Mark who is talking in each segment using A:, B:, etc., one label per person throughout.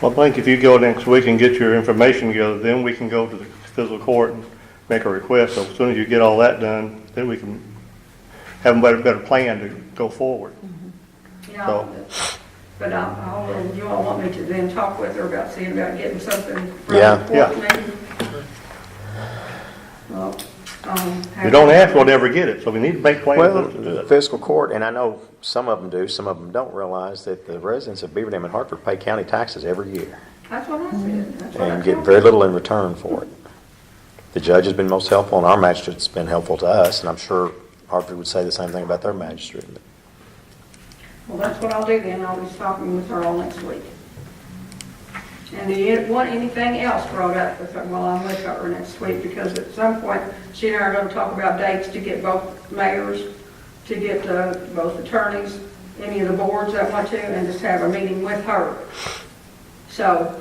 A: Well, I think if you go next week and get your information together, then we can go to the fiscal court and make a request. So as soon as you get all that done, then we can have a better, better plan to go forward.
B: Yeah, but I'll, I'll- and you all want me to then talk with her about seeing about getting something from
C: Yeah.
B: the
A: Yeah.
B: court maybe? Well, um.
A: If you don't ask, we'll never get it, so we need to make
C: Well,
A: plans to do
C: the
A: that.
C: fiscal court, and I know some of them do, some of them don't realize that the residents of Beaverdam and Hartford pay county taxes every year
B: That's what I said. That's what I
C: and get
B: told
C: very
B: her.
C: little in return for it. The judge has been most helpful, and our magistrate's been helpful to us, and I'm sure Hartford would say the same thing about their magistrate.
B: Well, that's what I'll do then. I'll be talking with her all next week. And do you want anything else brought up with her while I'm with her next week? Because at some point, she and I are gonna talk about dates to get both mayors, to get uh, both attorneys, any of the boards that want to, and just have a meeting with her. So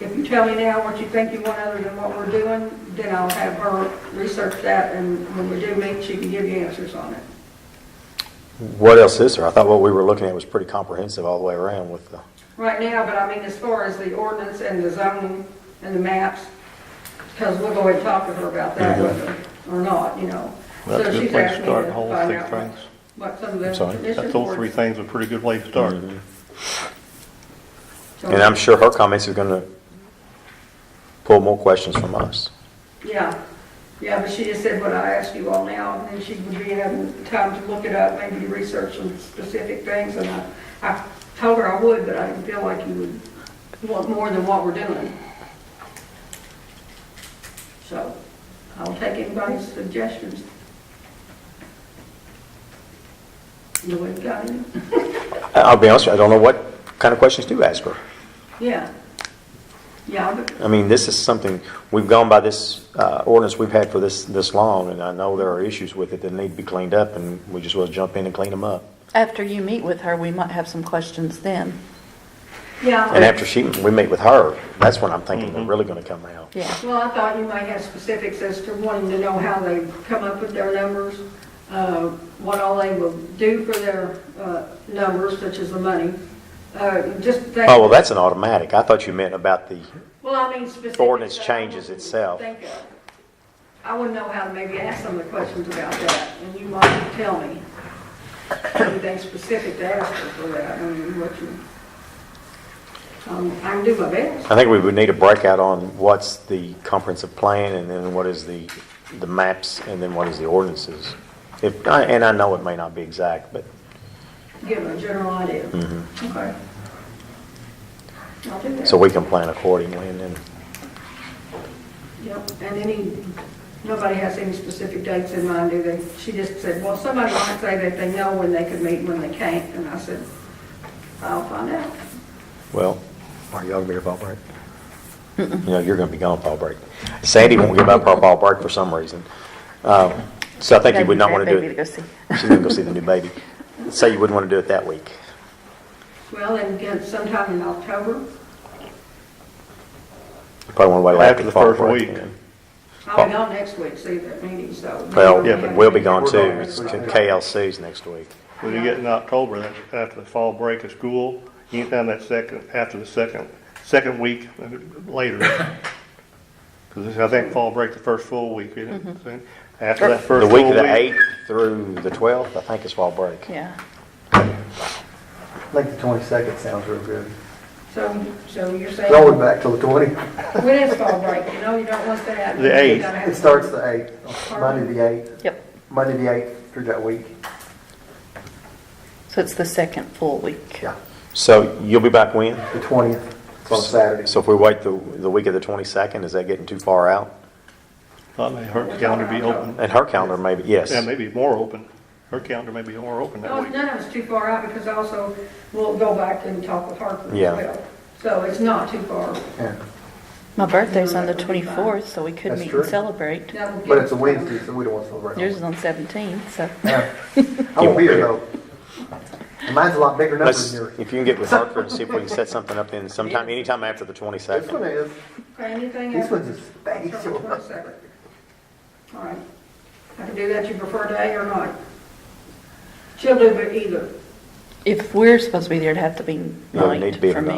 B: if you tell me now what you think you want other than what we're doing, then I'll have her research that, and when we do meet, she can give you answers on it.
C: What else is there? I thought what we were looking at was pretty comprehensive all the way around with the,
B: right now, but I mean, as far as the ordinance and the zoning and the maps, because we'll go and talk to her about that, whether or not, you know.
A: Well, That's
B: So
A: a good
B: she's
A: place
B: asked
A: to
B: me
A: start the whole
B: find
A: three
B: out
A: things.
B: What some of
C: I'm
B: the
C: sorry?
B: commission
A: That's all three
B: boards.
A: things, a pretty good way to start.
C: Mm-hmm. and I'm sure her comments are gonna pull more questions from us.
B: Yeah, yeah, but she just said what I asked you all now, and then she would be having time to look it up, maybe research some specific things, and I, I told her I would, but I didn't feel like you would want more than what we're doing. So, I'll take anybody's suggestions. Nobody got any?
C: I- I'll be honest, with you, I don't know what kind of questions to ask her.
B: Yeah. Yeah, but
C: I mean, this is something, we've gone by this uh, ordinance we've had for this, this long, and I know there are issues with it that need to be cleaned up, and we just want to jump in and clean them up.
D: After you meet with her, we might have some questions then.
B: yeah.
C: And after she, we meet with her, that's when I'm thinking they're really going to come out.
D: Yeah.
B: Well, I thought you might have specifics as to wanting to know how they come up with their numbers, uh, what all they will do for their uh, numbers, such as the money, uh, just things.
C: Oh, well, that's an automatic. I thought you meant about the,
B: Well, I mean specifics.
C: Ordinance
B: that I
C: changes
B: wouldn't
C: itself.
B: think of. I wouldn't know how to maybe ask some of the questions about that, and you might tell me anything specific to ask her for that, I mean, what you, um, I can do my best.
C: I think we would need a breakout on what's the comprehensive plan, and then what is the, the maps, and then what is the ordinances. If, I- and I know it may not be exact, but
B: give a general idea. Okay. I'll do that.
C: Mm-hmm. so we can plan accordingly, and then,
B: Yep, and any, nobody has any specific dates in mind, do they? She just said, well, somebody might say that they know when they could meet, and when they can't, and I said, I'll find out.
C: well, are y'all going to be here fall break? You know, you're going to be gone fall break. Sandy won't give up her fall break for some reason. Um, So I think you would not want to do
D: Baby to go
C: it.
D: see.
C: She's going to go see the new baby. Say you wouldn't want to do it that week.
B: Well, and again, sometime in October,
C: You Probably want to wait
A: After
C: after
A: the
C: the fall
A: first
C: break.
A: week.
C: then.
B: I'll be gone next week, see that meeting, so.
C: Well,
A: Yeah, but
C: we'll be gone
A: We're
C: too.
A: gone
C: It's KLC's next week.
A: When you get in October, that's after the fall break of school, anytime that second, after the second, second week later. Because I think fall break the first full week, isn't it? So After that
C: The
A: first
C: week
A: full
C: of the
A: week.
C: 8th through the 12th, I think is fall break.
D: Yeah.
E: I think the 22nd sounds real good.
B: So, so you're saying.
E: Roll it back till the 20th.
B: When is fall break? You know, you don't want that.
A: The eighth.
E: It starts the 8th, Monday the 8th,
D: Yep.
E: Monday the 8th through that week.
D: So it's the second full week.
E: Yeah,
C: So you'll be back when?
E: the 20th, it's on Saturday.
C: So if we wait the, the week of the 22nd, is that getting too far out?
A: Thought maybe her calendar be open.
C: And her calendar maybe, yes.
A: Yeah, maybe more open. Her calendar may be more open that
B: No,
A: week.
B: none of it's too far out because also we'll go back and talk with Harper as
C: Yeah.
B: well. So it's not too far.
E: Yeah.
D: My birthday's on the 24th, so we could
E: That's
D: meet
E: true.
D: and celebrate.
B: That will
E: But
B: give-
E: it's a Wednesday, so we don't want to celebrate.
D: Yours is on 17th, so.
E: Yeah. I won't be here though. Mine's a lot bigger number
C: Let's,
E: than yours.
C: if you can get with Hartford and see if we can set something up in sometime, anytime after the
E: This one
C: 22nd.
E: is,
B: Okay, Anything
E: this
B: else?
E: one's a spatial.
B: All right. I can do that. You prefer day or night? She'll do it either.
D: If we're supposed to be there, it'd have to be
C: No, it'd need
D: night
C: to be
D: for
C: at
D: me.